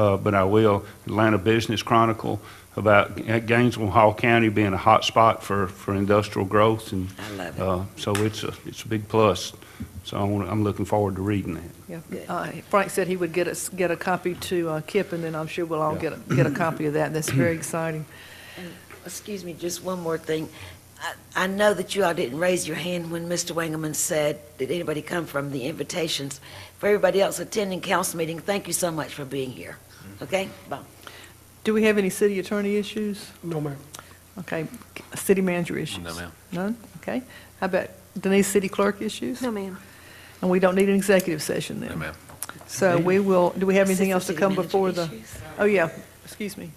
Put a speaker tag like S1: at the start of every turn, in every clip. S1: uh, but I will, Atlanta Business Chronicle about Gainesville Hall County being a hot spot for, for industrial growth and.
S2: I love it.
S1: uh, So it's a, it's a big plus. So I wanna- I'm looking forward to reading that.
S3: Yeah.
S2: Good.
S3: Uh, Frank said he would get us, get a copy to uh, Kip, and then I'm sure we'll all
S1: Yeah.
S3: get, a- get a copy of that. That's very exciting.
S2: Excuse me, just one more thing. I, I know that you all didn't raise your hand when Mr. Wangerman said, did anybody come from the invitations? For everybody else attending council meeting, thank you so much for being here. Okay? Bye.
S3: Do we have any city attorney issues?
S4: No, ma'am.
S3: Okay, c- city manager issues?
S5: No, ma'am.
S3: None? Okay. How about Denise, city clerk issues?
S6: No, ma'am.
S3: And we don't need an executive session then?
S5: No, ma'am.
S3: So we will, do we have anything
S2: Assistant
S3: else to
S2: city
S3: come
S2: manager
S3: before the?
S6: issues.
S3: Oh, yeah, excuse me.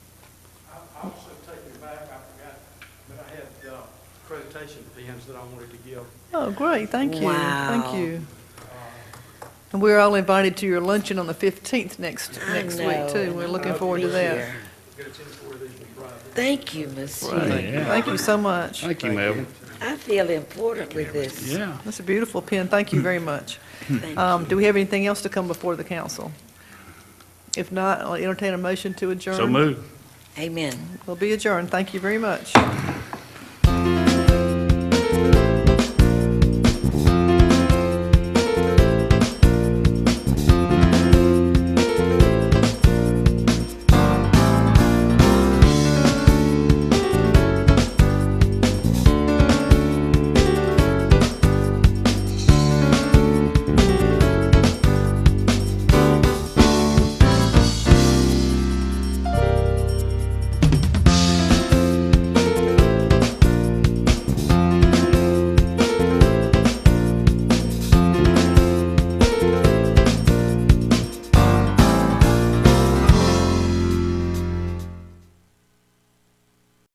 S4: I also take it back, I forgot, but I had uh, accreditation pins that I wanted to give.
S3: Oh, great, thank you,
S2: Wow.
S3: thank you. And we're all invited to your luncheon on the 15th next,
S2: I
S3: next
S2: know,
S3: week, too.
S2: and
S3: We're
S2: I'll
S3: looking forward to
S2: be
S3: that.
S2: here.
S4: Get a ten for these on Friday.
S2: Thank you, Miss Hughes.
S3: Thank you so much.
S1: Thank you, Melvin.
S2: I feel important with this.
S1: Yeah.
S3: That's a beautiful pen, thank you very much.
S2: Thank
S3: Um, Do we have anything else to come before the council? If not, I'll entertain a motion to adjourn.
S1: So move.
S2: Amen.
S3: We'll be adjourned, thank you very much.